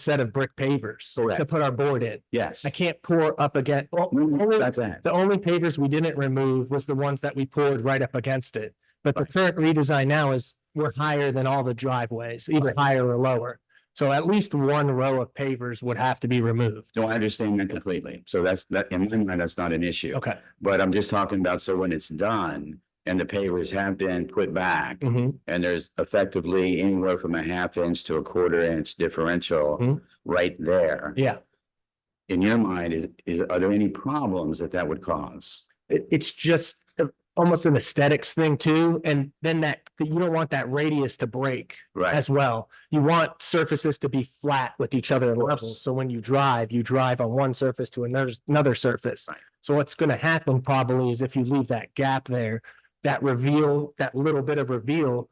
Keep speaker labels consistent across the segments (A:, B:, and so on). A: set of brick pavers to
B: Correct.
A: put our board in.
B: Yes. Mm-hmm.
A: I can't pour up again.
B: Only-
A: The only pavers we didn't remove was the ones that we poured right up against it. But the current redesign now is we're higher than all the driveways, either higher or lower. So at least one row of pavers would have to be removed.
B: No, I understand that completely. So that's, that, in my mind, that's not an issue.
A: Okay.
B: But I'm just talking about, so when it's done and the pavers have been put back
A: Mhm.
B: and there's effectively anywhere from a half inch to a quarter inch differential
A: Mhm.
B: right there.
A: Yeah.
B: In your mind, is, is, are there any problems that that would cause?
A: It, it's just uh, almost an aesthetics thing too. And then that, you don't want that radius to break.
B: Right,
A: as well. You want surfaces to be flat with each other in levels. So when you drive, you drive on one surface to another, another surface.
B: Right.
A: So what's gonna happen probably is if you leave that gap there, that reveal, that little bit of reveal,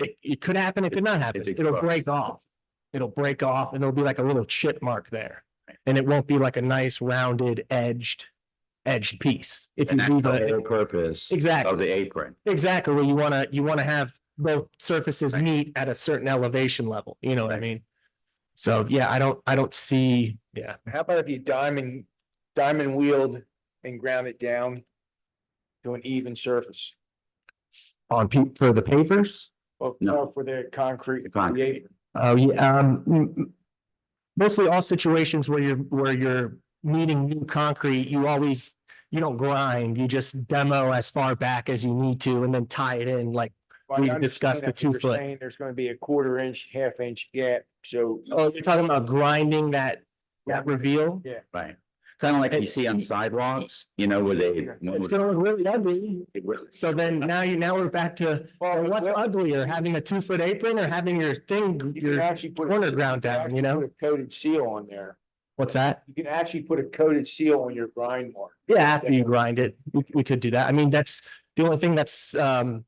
A: it, it could happen, it could not happen.
B: It's
A: It'll
B: exposed.
A: break off. It'll break off and there'll be like a little chip mark there. And it won't be like a nice rounded edged, edged piece. If you
B: and that's
A: leave
B: the whole
A: it,
B: purpose
A: exactly.
B: of the apron.
A: Exactly. You wanna, you wanna have both surfaces
B: Right.
A: meet at a certain elevation level, you know what I
B: Right.
A: mean? So, yeah, I don't, I don't see, yeah,
C: How about if you diamond, diamond wheeled and ground it down to an even surface?
A: on pe- for the pavers?
C: Or
B: No.
C: or for the concrete.
B: The concrete.
C: creator?
A: Oh, yeah, um, mm, mm. mostly all situations where you're, where you're needing new concrete, you always, you don't grind, you just demo as far back as you need to and then tie it in like,
C: Well, I
A: We
C: understand
A: discussed the
C: that, but you're
A: two-foot.
C: saying There's gonna be a quarter inch, half inch gap, so.
A: oh, you're talking about grinding that, that reveal?
C: Yeah.
B: Right. Kind of like you
A: It-
B: see on sidewalks, you know, where they.
A: It's gonna look really ugly. So then now you, now we're back to, well, what's
C: well,
A: uglier, having a two foot apron or having your thing,
C: You can
A: your,
C: actually put. a-
A: corner ground
C: can
A: down,
C: actually
A: you know?
C: put A coated seal on there.
A: what's that?
C: You can actually put a coated seal on your grind mark.
A: Yeah, after you grind it, we, we could do that. I mean, that's the only thing that's, um,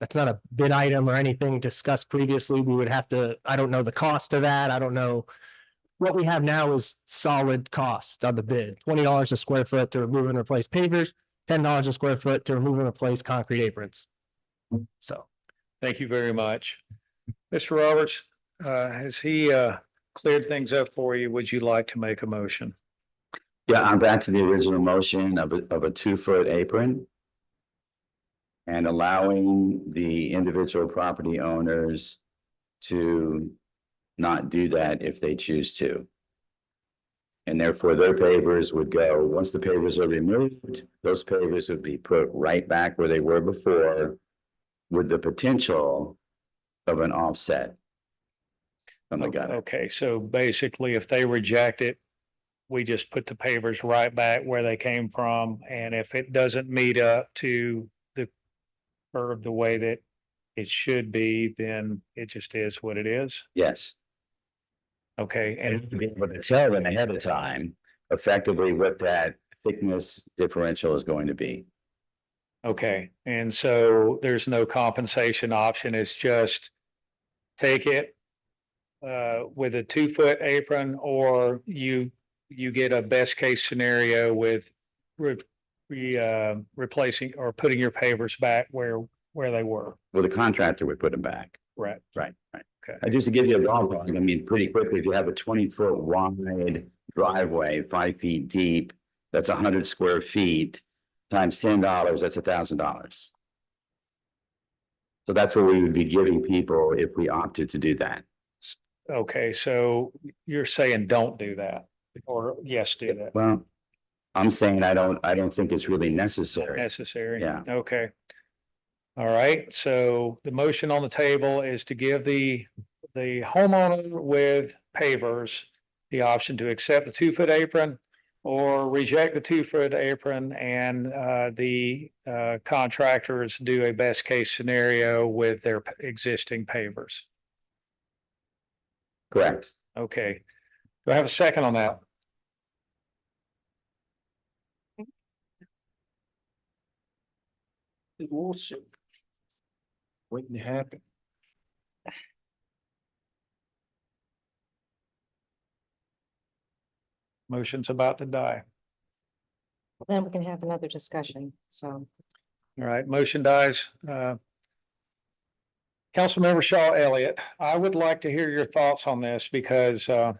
A: that's not a bid item or anything discussed previously. We would have to, I don't know the cost of that. I don't know. What we have now is solid cost on the bid, twenty dollars a square foot to remove and replace pavers, ten dollars a square foot to remove and replace concrete aprons. So.
D: Thank you very much. Mr. Roberts, uh, has he, uh, cleared things up for you? Would you like to make a motion?
B: Yeah, I'm back to the original motion of a, of a two-foot apron. And allowing the individual property owners to not do that if they choose to. And therefore their pavers would go, once the pavers are removed, those pavers would be put right back where they were before. With the potential of an offset. Oh my God,
D: Okay, so basically if they reject it, we just put the pavers right back where they came from. And if it doesn't meet up to the curve the way that it should be, then it just is what it is.
B: yes.
D: Okay,
B: and to
D: and
B: be able to tell them ahead of time effectively what that thickness differential is going to be.
D: Okay, and so there's no compensation option, it's just take it uh, with a two-foot apron, or you, you get a best-case scenario with re, re, uh, replacing or putting your pavers back where, where they were.
B: Well, the contractor would put them back.
D: Right.
B: Right, right.
D: Okay.
B: Uh, Just to give you a ballpark, I mean, pretty quickly, if you have a twenty foot wide driveway, five feet deep, that's hundred square feet, times ten dollars, that's thousand dollars. So that's what we would be giving people if we opted to do that.
D: Okay, so you're saying don't do that, or yes, do that,
B: Well, I'm saying I don't, I don't think it's really necessary.
D: necessary?
B: Yeah.
D: Okay. All right, so the motion on the table is to give the, the homeowner with pavers the option to accept the two-foot apron or reject the two-foot apron and, uh, the, uh, contractors do a best-case scenario with their p- existing pavers.
B: Correct.
D: Okay. Do I have a second on that?
C: It will soon. Waiting to happen.
D: Motion's about to die.
E: Then we can have another discussion, so.
D: All right, motion dies. Uh, Councilmember Shaw Elliott, I would like to hear your thoughts on this because, uh,